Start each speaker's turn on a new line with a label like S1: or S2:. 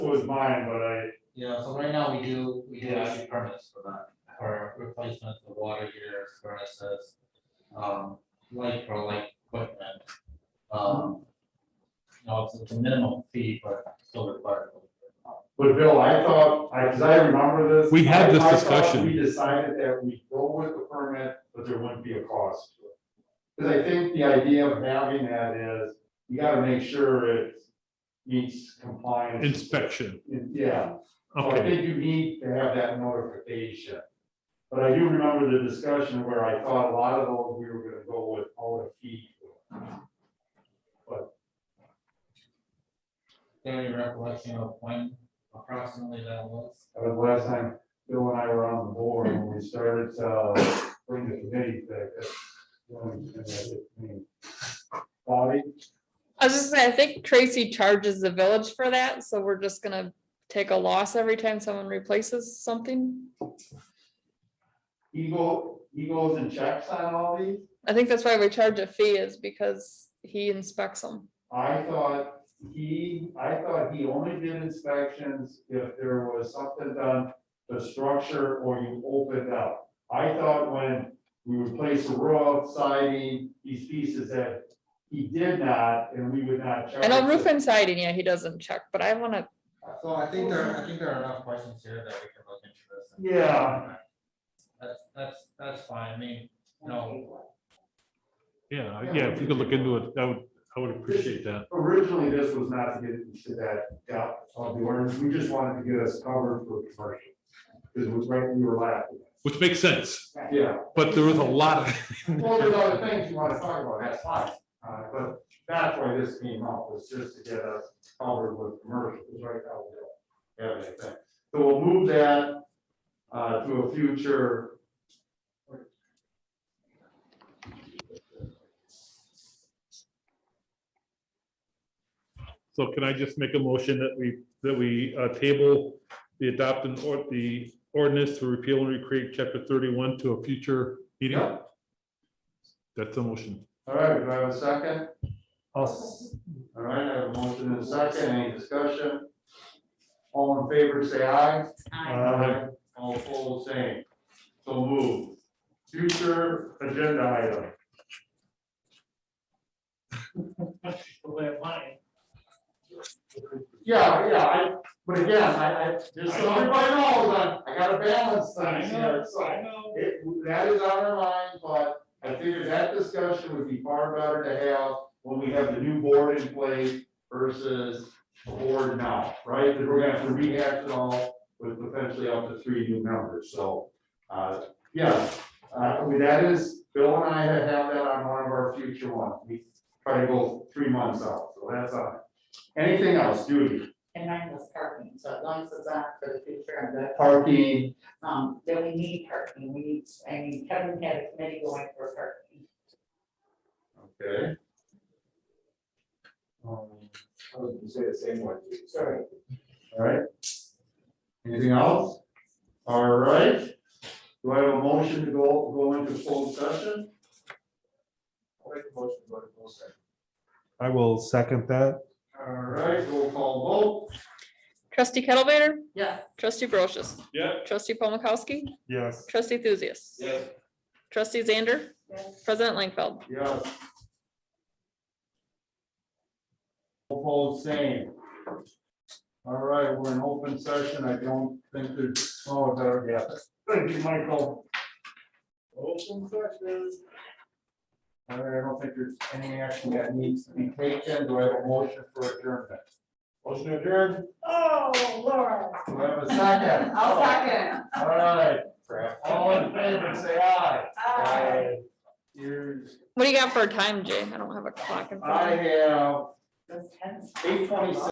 S1: was mine, but I,
S2: Yeah, so right now we do, we do
S1: Yes.
S2: actually permits for that, for replacement of water heaters, furnaces, um, light for light equipment. Um, you know, it's- it's a minimal fee, but still required.
S1: but Bill, I thought, I, cause I remember this.
S3: We had
S1: I-
S3: this
S1: I thought
S3: discussion.
S1: We decided that we go with the permit, but there wouldn't be a cost. to it. Cause I think the idea of having that is, you gotta make sure it meets compliance.
S3: Inspection,
S1: Yeah. So
S4: Oh,
S1: I
S3: okay,
S1: think you need to have that notification. But I do remember the discussion where I thought a lot of those we were gonna go with all the feet.
S2: Do you have any recollection of when approximately that was?
S1: That was the last time Bill and I were on the board when we started to bring the committee back. that's when we had it, I mean, Bobby,
S5: I was just saying, I think Tracy charges the village for that, so we're just gonna take a loss every time someone replaces something.
S1: he go, he goes and checks on all these?
S5: I think that's why we charge a fee is because he inspects them.
S1: I thought he, I thought he only did inspections if there was something done to structure or you opened up. I thought when we would place the roof, siding, these pieces that he did not, and we would not charge.
S5: I know roof
S1: it.
S5: and siding, yeah, he doesn't check, but I wanna,
S2: So I think there, I think there are enough questions here that we can look into this. and-
S1: Yeah.
S2: That's, that's, that's fine, I mean, no,
S3: yeah, yeah, if you could look into it, I would, I would appreciate that.
S1: Originally, this was not to get into that depth of the ordinance, we just wanted to get us covered for commercial. Because it was right, we were laughing.
S3: Which makes sense,
S1: Yeah.
S3: but there was a lot of.
S1: Well, there's other things you wanna talk about, that's fine, uh, but that's why this came up, was just to get us covered with commercials, right now we don't have anything. So we'll move that, uh, to a future.
S3: So can I just make a motion that we, that we uh, table the adoption or the ordinance to repeal and recreate chapter thirty-one to a future meeting?
S1: Yep.
S3: That's the motion.
S1: All right, do I have a second? All right, I have a motion and a second, any discussion? All in favor, say aye. Aye. All opposed, same. So move. Future agenda item. Yeah, yeah, I, but again, I, I, just so everybody knows, I, I gotta balance things here, so.
S2: know.
S1: It, that is on our mind, but I figured that discussion would be far better to have when we have the new board in place versus the board now, right? Because we're gonna have to rehash it all with potentially up to three new members, so, uh, yeah. Uh, I mean, that is, Bill and I have that on one of our future ones, we try to go three months out, so that's on. Anything else, Judy?
S6: And mine was parking, so as long as it's on for the future, I'm good.
S1: Parking,
S6: Um, then we need parking, we need, I mean, Kevin had a committee going for parking.
S1: okay. Um,
S7: I was gonna say the same one. too.
S6: Sorry.
S1: All right. Anything else? All right. Do I have a motion to go, go into full session?
S7: I'll make a motion to go to full session.
S4: I will second that.
S1: All right, roll call
S5: trustee Kettlebaiter,
S6: Yes.
S5: trustee Brochus,
S3: Yeah.
S5: trustee Paul Mikowski,
S4: Yes.
S5: trustee Thuzius.
S1: Yes.
S5: Trustee Zander,
S6: Yes.
S5: president Langfeld.
S1: vote, yes. Roll call same. All right, we're in open session. I don't think there's, oh, there, yeah. Thank you, Michael. Open session. All right, I don't think there's any action that needs to be taken. Do I have a motion for adjournment? Motion adjourned.
S6: Oh, Laura.
S1: Do I have a second?
S6: I'll second.
S1: All right, all in favor, say aye.
S6: Aye.
S1: Here's,
S5: What do you got for a time, Jay? I don't have a clock in front of me.
S1: I have
S6: That's tense.
S1: eight twenty-six.